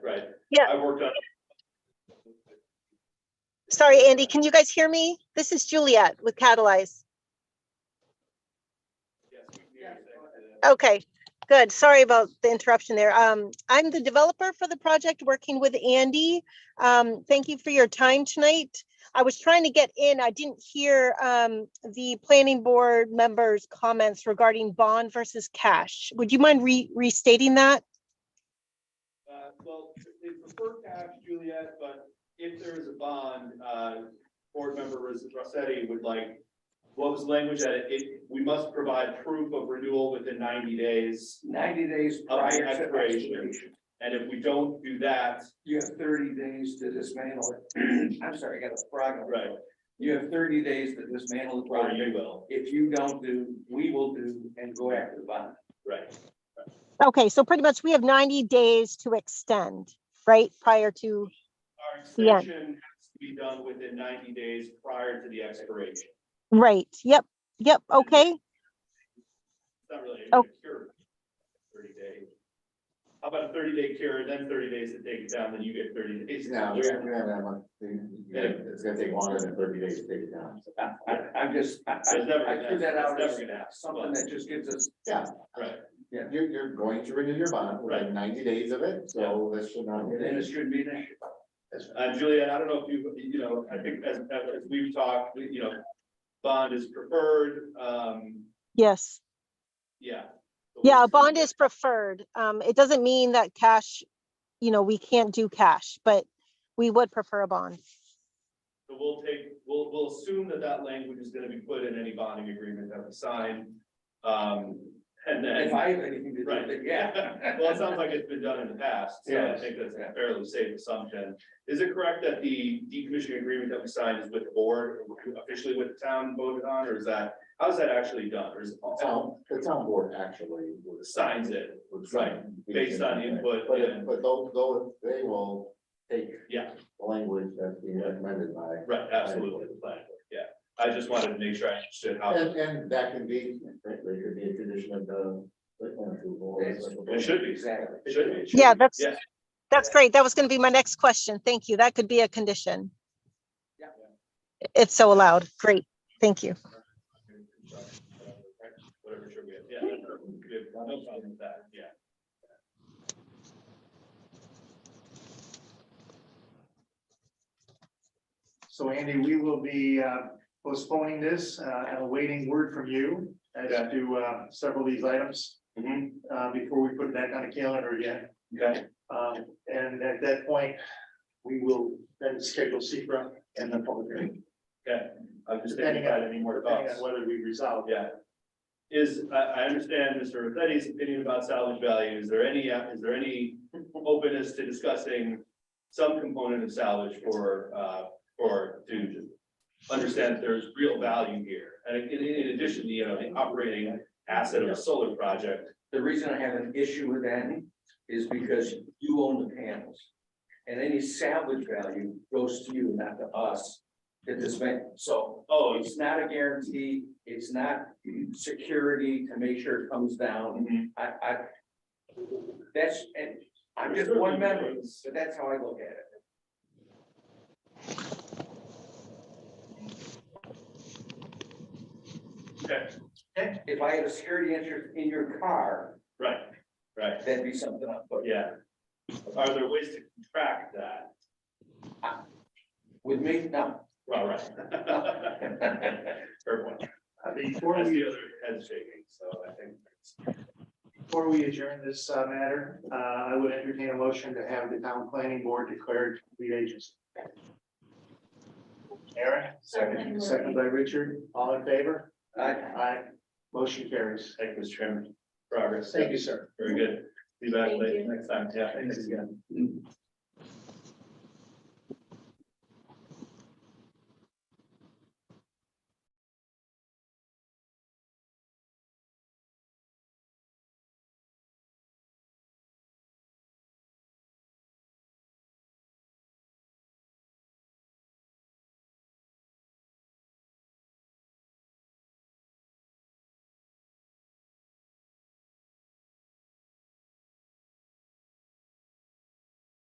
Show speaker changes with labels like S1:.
S1: Yeah,
S2: I worked on.
S1: sorry, Andy, can you guys hear me? This is Juliet with Catalyze. Okay, good. Sorry about the interruption there. Um, I'm the developer for the project, working with Andy. Um, thank you for your time tonight. I was trying to get in, I didn't hear, um, the planning board members' comments regarding bond versus cash. Would you mind re- restating that?
S2: Uh, Well, they prefer cash, Juliet, but if there is a bond, uh, board member Ros- Rossetti would like, what was the language that it- it, we must provide proof of renewal within ninety days,
S3: ninety days
S2: Of
S3: prior to
S2: expiration.
S3: expiration.
S2: and if we don't do that,
S3: You have thirty days to dismantle it. I'm sorry, I got a frog. in my
S2: Right.
S3: throat. You have thirty days to dismantle the
S2: or you
S3: project.
S2: will,
S3: If you don't do, we will do and go after the bond.
S2: right?
S1: Okay, so pretty much we have 90 days to extend, right, prior to,
S2: Our
S1: Yeah.
S2: extension has to be done within ninety days prior to the expiration.
S1: right, yep, yep, okay.
S2: It's not really a
S1: Oh.
S2: cure. Thirty day. How about a thirty day cure, then thirty days to take it down, then you get thirty days.
S4: No, we haven't done that much. It's gonna take longer than thirty days to take it down.
S3: I, I- I'm just, I,
S2: It's never
S3: I I threw
S2: gonna-
S3: that out
S2: it's
S3: as
S2: never gonna happen.
S3: something that just gives us.
S4: Yeah,
S2: Right,
S4: you're, you're going to renew your bond, we have ninety days of it, so this should not be
S3: Then
S4: an
S3: it
S4: issue.
S3: shouldn't be an issue.
S2: uh, Juliet, I don't know if you, you know, I think as, as we've talked, we- you know, bond is preferred, um,
S1: Yes.
S2: yeah.
S1: Yeah, a bond is preferred. Um, it doesn't mean that cash, you know, we can't do cash, but we would prefer a bond.
S2: So we'll take, we'll, we'll assume that that language is gonna be put in any bonding agreement that we sign. Um, and then.
S3: If I have anything to do with it,
S2: Right.
S3: yeah.
S2: Well, it sounds like it's been done in the past, so I
S3: Yes.
S2: think that's a fairly safe assumption. Is it correct that the decommissioning agreement that we signed is with the board, officially with the town voted on, or is that, how's that actually done? Or is it
S4: The town, the town board actually. would-
S2: Signs it,
S4: would sign the
S2: based on input
S4: But,
S2: and-
S4: if- but they'll, they'll, they will take.
S2: Yeah.
S4: The language that's being recommended by.
S2: right, absolutely, the plan, yeah. I just wanted to make sure I understood how
S4: And, and that can be, frankly, could be a condition of the. site plan approval or
S3: It's-
S4: special
S2: it should be, it
S3: Exactly.
S2: should be. it should
S1: Yeah,
S2: be.
S1: that's,
S2: Yeah.
S1: that's great. That was gonna be my next question. Thank you. That could be a condition.
S3: Yeah.
S1: It's so allowed. Great. Thank you.
S2: Whatever, sure, we have, yeah, no problem with that, yeah.
S5: So Andy, we will be uh, postponing this uh, and awaiting word from you as
S2: Yeah.
S5: to uh, several of these items
S2: Mhm,
S5: uh, before we put that on the calendar again.
S2: okay,
S5: Um, And at that point, we will then schedule secra and the public hearing,
S2: okay. I'm just thinking
S5: Depending
S2: about
S5: on-
S2: any more
S5: depending
S2: thoughts.
S5: on whether we resolve.
S2: Yeah. Is, I, I understand Mr. Rossetti's opinion about salvage value. Is there any, uh, is there any openness to discussing some component of salvage for, uh, for to understand that there's real value here? And in, in addition, you know, the operating asset of a solar project,
S3: The reason I have an issue with that is because you own the panels. And any salvage value goes to you, not to us, to this man. So
S2: oh, it's.
S3: it's not a guarantee, it's not security to make sure it comes down.
S5: Mm-hmm.
S3: I, I, that's, and I'm just one member, but that's how I look at it.
S2: Okay,
S3: If I had a security interest in your car,
S2: right, right,
S3: that'd be something I'd put.
S2: yeah. Are there ways to track that?
S3: With me, no.
S2: Well, right. Fair point.
S5: Uh, Before
S2: That's
S5: we,
S2: the other head shaking, so I think.
S5: before we adjourn this uh, matter, uh, I would entertain a motion to have the town planning board declared lead agency. Aaron, second, second by Richard, all in favor?
S3: I,
S5: Aye. Motion carries.
S2: Thank you, Mr. Chairman. Progress.
S5: Thank you, sir.
S2: Very good. Be back late next time. Yeah, thanks again.